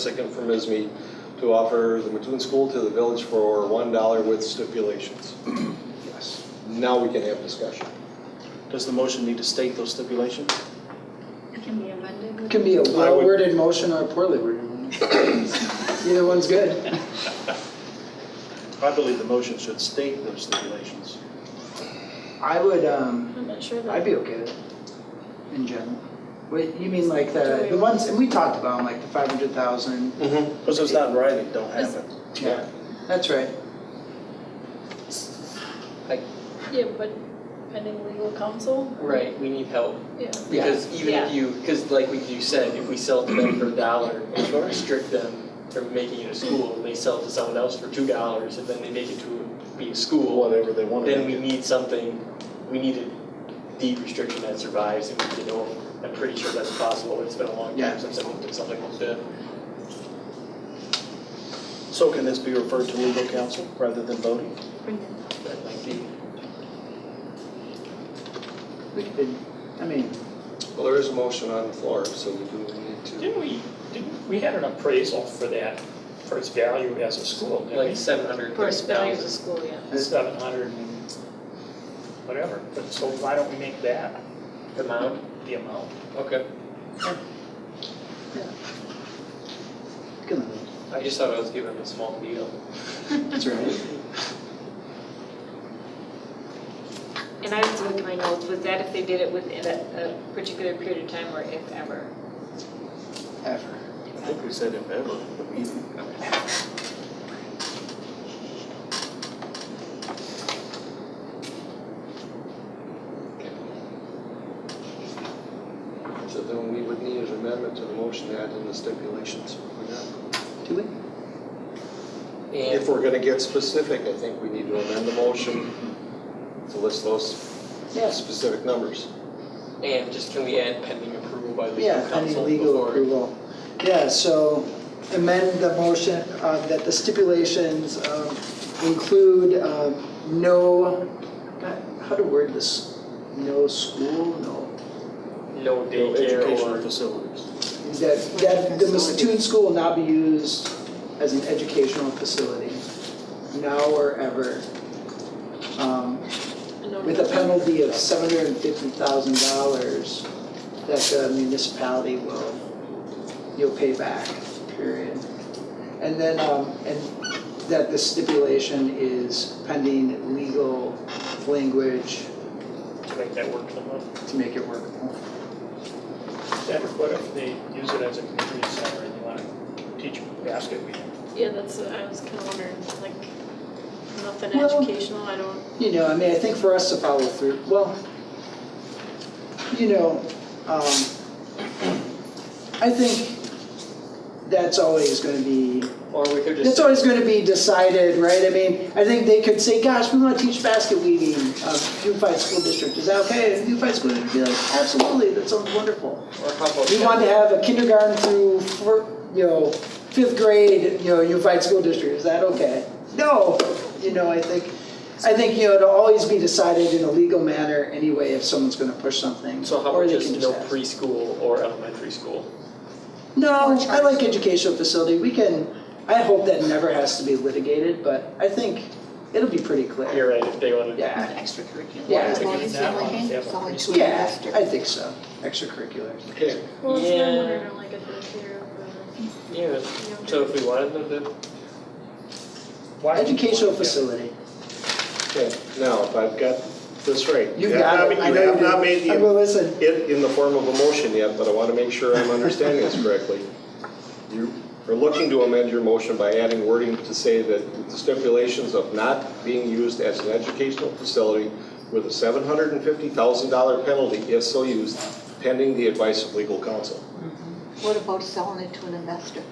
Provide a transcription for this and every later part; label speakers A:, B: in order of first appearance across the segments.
A: Second from Isme to offer the Mattoon School to the village for one dollar with stipulations.
B: Yes.
A: Now we can have discussion.
B: Does the motion need to state those stipulations?
C: It can be amended.
D: Can be a
B: would-
D: well-worded motion or a poorly worded one. Either one's good.
B: I believe the motion should state those stipulations.
D: I would, um,
C: I'm not sure
D: I'd
C: that,
D: be okay with it in general. Wait, you mean like the,
C: Do
D: the
C: we-
D: ones, and we talked about them, like the five hundred thousand?
B: Because it's not in writing, don't have it.
D: Yeah, that's right.
C: yeah, but pending legal counsel?
E: Right, we need help,
C: Yeah.
D: Yeah.
E: because even if you, because like what you said, if we sell to them for a dollar, we don't restrict them from making it a school, they sell to someone else for two dollars, and then they make it to be a school,
B: Whatever they want to
E: then we
B: do.
E: need something, we need a deed restriction that survives, and we, you know, I'm pretty sure that's possible, it's been a long
D: Yeah.
E: time since I looked at something like that.
B: So can this be referred to legal counsel rather than voting?
E: That might be,
D: We could, I mean,
A: Well, there is a motion on the floor, so we do need to.
F: Didn't we, didn't, we had an appraisal for that, for its value as a school,
E: like
F: didn't
E: seven hundred
C: First
E: thousand
C: value of the
E: dollars.
C: school, yeah.
F: we? Seven hundred and whatever, but so why don't we make that
E: The amount,
F: the amount?
E: okay,
D: come on,
E: I just thought I was giving them a small deal.
D: that's right.
C: And I was looking at my notes, was that if they did it within a, a particular period of time or if ever?
D: Ever.
B: I think we said if ever, but we,
A: So then we would need an amendment to the motion to add in the stipulations.
D: Do we?
A: If we're gonna get specific, I think we need to amend the motion to list those
D: Yes.
A: specific numbers.
E: And just can we add pending approval by legal
D: Yeah,
E: counsel
D: pending
E: before?
D: legal approval. Yeah, so amend the motion uh, that the stipulations um, include um, no, God, how to word this, no school, no.
E: No
B: no educational
E: daycare or.
B: facilities.
D: That, that the Mattoon School will not be used as an educational facility, now or ever, um, with a penalty of seven hundred and fifty thousand dollars that the municipality will, you'll pay back, period. And then, um, and that the stipulation is pending legal language
F: To make that work somehow?
D: to make it workable.
F: Then what if they use it as a community center and you wanna teach basket weaving?
C: Yeah, that's, what I was kind of wondering, like, nothing
D: Well-
C: educational, I don't,
D: You know, I mean, I think for us to follow through, well, you know, um, I think that's always gonna be
E: Or we could
D: It's
E: just,
D: always going to be decided, right? I mean, I think they could say, gosh, we want to teach basket weaving, uh, Unified School District. Is that okay? And Unified School District would be like, absolutely, that sounds wonderful.
E: or how about?
D: We want to have a kindergarten through, fir- you know, fifth grade, you know, Unified School District. Is that okay? No, you know, I think, I think, you know, it'll always be decided in a legal manner anyway if someone's going to push something.
E: So how
D: or
E: about
D: they
E: just
D: can
E: no
D: ask.
E: preschool or elementary school?
D: No, I like educational facility, we can, I hope that never has to be litigated, but I think it'll be pretty clear.
E: You're right, if they wanted.
D: Yeah,
G: extracurricular.
D: Yeah.
G: As long as they're working, it's all like.
D: yeah, I think so, extracurriculars.
A: Okay,
C: well, it's not
E: Yeah.
C: wondering like if it's here or,
E: Yeah,
C: you know.
E: so if we wanted them to,
F: Why would you want
D: Educational
F: that?
D: facility,
A: okay, now, if I've got this right.
D: you got it, I
A: You
D: know you
A: have
D: did.
A: not made the
D: I will listen,
A: it in the form of a motion yet, but I want to make sure I'm understanding this correctly. You are looking to amend your motion by adding wording to say that with the stipulations of not being used as an educational facility with a $750,000 penalty if so used, pending the advice of legal counsel.
G: What about selling it to an investor?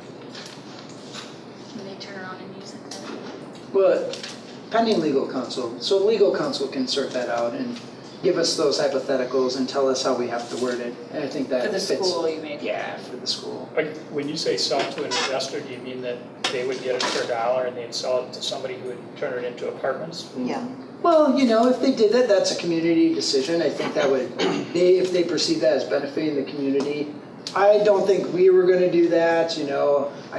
H: Can they turn around and use it then?
D: but pending legal counsel, so legal counsel can sort that out and give us those hypotheticals and tell us how we have to word it, and I think that
C: for the
D: fits.
C: school, you mean?
D: Yeah, for the school,
F: Like, when you say sell to an investor, do you mean that they would get it for a dollar and they'd sell it to somebody who would turn it into apartments?
G: Yeah.
D: well, you know, if they did that, that's a community decision, I think that would, they, if they perceive that as benefiting the community, I don't think we were gonna do that, you know, I